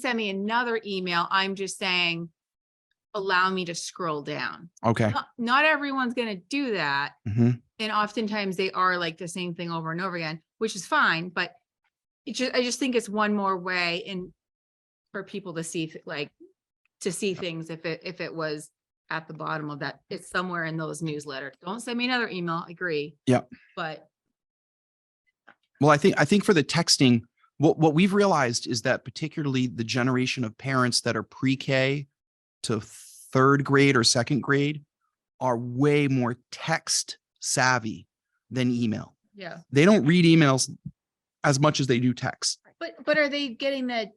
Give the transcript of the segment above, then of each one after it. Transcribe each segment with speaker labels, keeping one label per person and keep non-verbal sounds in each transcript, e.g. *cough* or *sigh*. Speaker 1: send me another email. I'm just saying, allow me to scroll down.
Speaker 2: Okay.
Speaker 1: Not- Not everyone's gonna do that.
Speaker 2: Mhm.
Speaker 1: And oftentimes they are like the same thing over and over again, which is fine, but it just, I just think it's one more way in for people to see, th- like, to see things if it, if it was at the bottom of that, it's somewhere in those newsletters. Don't send me another email, I agree.
Speaker 2: Yep.
Speaker 1: But
Speaker 2: Well, I think, I think for the texting, what, what we've realized is that particularly the generation of parents that are pre-K to third grade or second grade are way more text savvy than email.
Speaker 1: yeah,
Speaker 2: They don't read emails as much as they do text.
Speaker 1: but, but are they getting the,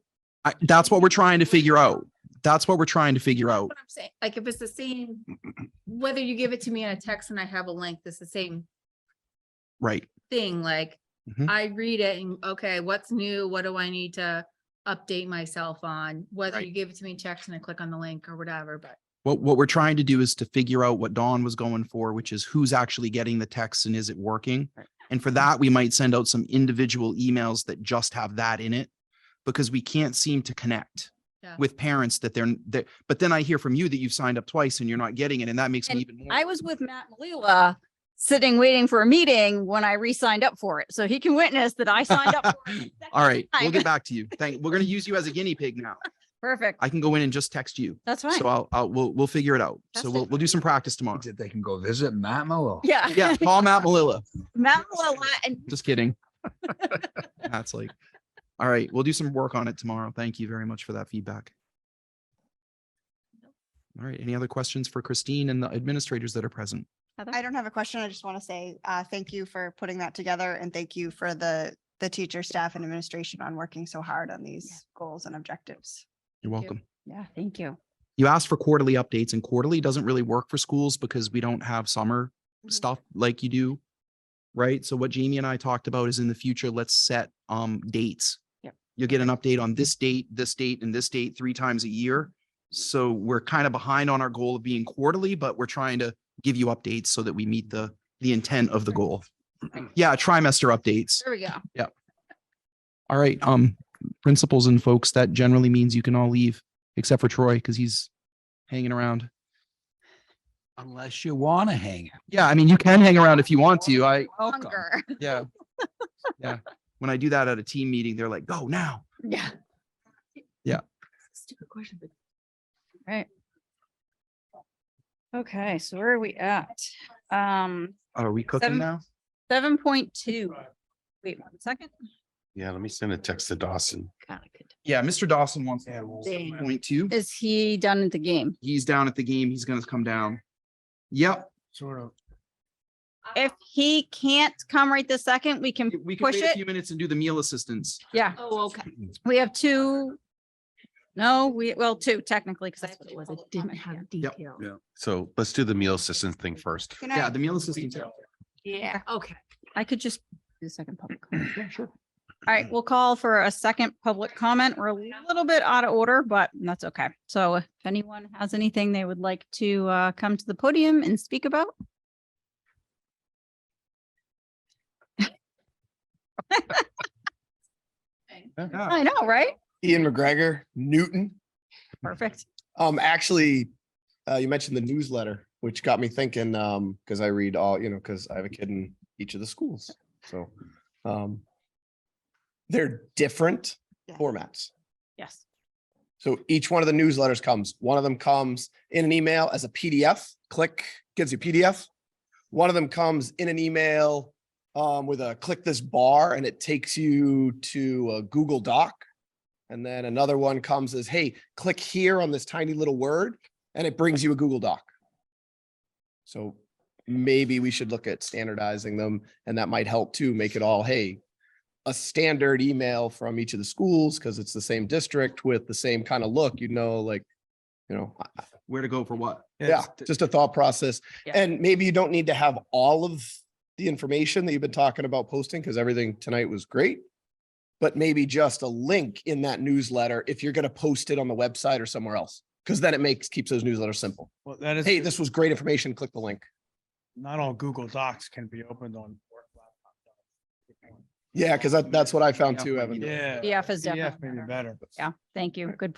Speaker 2: I, that's what we're trying to figure out. That's what we're trying to figure out.
Speaker 1: what I'm saying, like, if it's the same, whether you give it to me in a text and I have a link, it's the same
Speaker 2: Right.
Speaker 1: thing, like
Speaker 2: Mhm.
Speaker 1: I read it and, okay, what's new? What do I need to update myself on? Whether
Speaker 2: Right.
Speaker 1: you give it to me in text and I click on the link or whatever, but
Speaker 2: What, what we're trying to do is to figure out what Dawn was going for, which is who's actually getting the text and is it working?
Speaker 1: Right.
Speaker 2: And for that, we might send out some individual emails that just have that in it because we can't seem to connect
Speaker 1: Yeah.
Speaker 2: with parents that they're, that, but then I hear from you that you've signed up twice and you're not getting it. And that makes me
Speaker 3: And
Speaker 2: even more.
Speaker 3: I was with Matt Malila, uh, sitting, waiting for a meeting when I re-signed up for it. So he can witness that I signed up. for
Speaker 2: *laughs*
Speaker 3: it. the
Speaker 2: *laughs* All right, we'll
Speaker 3: time.
Speaker 2: get
Speaker 3: *laughs*
Speaker 2: back to you. Thank, we're going to use you as a guinea pig now.
Speaker 3: Perfect.
Speaker 2: I can go in and just text you.
Speaker 3: That's fine.
Speaker 2: So I'll, I'll, we'll, we'll figure it out.
Speaker 3: That's
Speaker 2: So we'll,
Speaker 3: different.
Speaker 2: we'll do some practice tomorrow.
Speaker 4: that they can go visit Matt Malone.
Speaker 3: Yeah. *laughs*
Speaker 2: Yeah, Paul Matt Malilla.
Speaker 3: Matt Malila and
Speaker 2: Just kidding. *laughs* That's like, all right, we'll do some work on it tomorrow. Thank you very much for that feedback. All right, any other questions for Christine and the administrators that are present?
Speaker 5: I don't have a question. I just want to say, uh, thank you for putting that together and thank you for the, the teacher, staff and administration on working so hard on these goals and objectives.
Speaker 2: You're
Speaker 1: Thank you.
Speaker 2: welcome.
Speaker 3: yeah, thank you.
Speaker 2: You asked for quarterly updates and quarterly doesn't really work for schools because we don't have summer
Speaker 5: Mhm.
Speaker 2: stuff like you do. Right? So what Jamie and I talked about is in the future, let's set um dates.
Speaker 3: Yep.
Speaker 2: You'll get an update on this date, this date, and this date three times a year. So we're kind of behind on our goal of being quarterly, but we're trying to give you updates so that we meet the the intent of the goal. Yeah, trimester updates.
Speaker 1: there we go.
Speaker 2: All right, um, principals and folks, that generally means you can all leave except for Troy because he's hanging around.
Speaker 4: Unless you want to hang. out.
Speaker 2: Yeah, I mean, you can hang around if you want to.
Speaker 3: *laughs*
Speaker 2: I,
Speaker 4: Welcome.
Speaker 3: Hunger.
Speaker 2: yeah. Yeah. When I do that at a team meeting, they're like, go now.
Speaker 3: Yeah.
Speaker 1: Stupid question, but
Speaker 3: Right. Okay, so where are we at? Um,
Speaker 2: Are we
Speaker 3: Seven-
Speaker 2: cooking now?
Speaker 3: seven point two. Wait one second.
Speaker 6: Yeah, let me send a text to Dawson.
Speaker 2: Yeah, Mr. Dawson wants
Speaker 4: Yeah, we'll-
Speaker 3: Dang.
Speaker 2: point two.
Speaker 3: Is he done at the game?
Speaker 2: He's down at the game. He's gonna come down. Yep.
Speaker 4: Sort of.
Speaker 3: If he can't come right this second, we can,
Speaker 2: We can
Speaker 3: Push
Speaker 2: wait a
Speaker 3: it.
Speaker 2: few minutes and do the meal assistance.
Speaker 3: yeah.
Speaker 1: Oh, okay.
Speaker 3: We have two. No, we, well, two technically, because
Speaker 1: That's what it was. It didn't have
Speaker 2: Yep.
Speaker 1: detail.
Speaker 6: Yeah. So let's do the meal assistance thing first.
Speaker 5: Good
Speaker 2: Yeah,
Speaker 5: night.
Speaker 2: the meal assistance.
Speaker 1: Yeah, okay.
Speaker 3: I could just do a second public. comment. All right, we'll call for a second public comment. We're a little bit out of order, but that's okay. So if anyone has anything they would like to uh, come to the podium and speak about. *laughs* I know, right?
Speaker 7: Ian McGregor, Newton.
Speaker 3: Perfect.
Speaker 7: Um, actually, uh, you mentioned the newsletter, which got me thinking, um, because I read all, you know, because I have a kid in each of the schools. So, um, they're different
Speaker 5: Yeah.
Speaker 7: formats.
Speaker 3: Yes.
Speaker 7: So each one of the newsletters comes, one of them comes in an email as a PDF, click, gives you PDF. One of them comes in an email um, with a click this bar and it takes you to a Google Doc. And then another one comes as, hey, click here on this tiny little word and it brings you a Google Doc. So maybe we should look at standardizing them and that might help too, make it all, hey, a standard email from each of the schools because it's the same district with the same kind of look, you know, like, you know, I- I-
Speaker 2: Where to go for what?
Speaker 7: yeah, just a thought process.
Speaker 3: Yeah.
Speaker 7: And maybe you don't need to have all of the information that you've been talking about posting because everything tonight was great. But maybe just a link in that newsletter if you're going to post it on the website or somewhere else, because then it makes, keeps those newsletters simple.
Speaker 8: Well, that
Speaker 7: Hey,
Speaker 8: is,
Speaker 7: this was great information. Click the link.
Speaker 8: not all Google Docs can be opened on. work laptop.
Speaker 7: Yeah, because that, that's what I found too, Evan.
Speaker 3: PDF is definitely
Speaker 8: Maybe better.
Speaker 3: Yeah, thank you. Good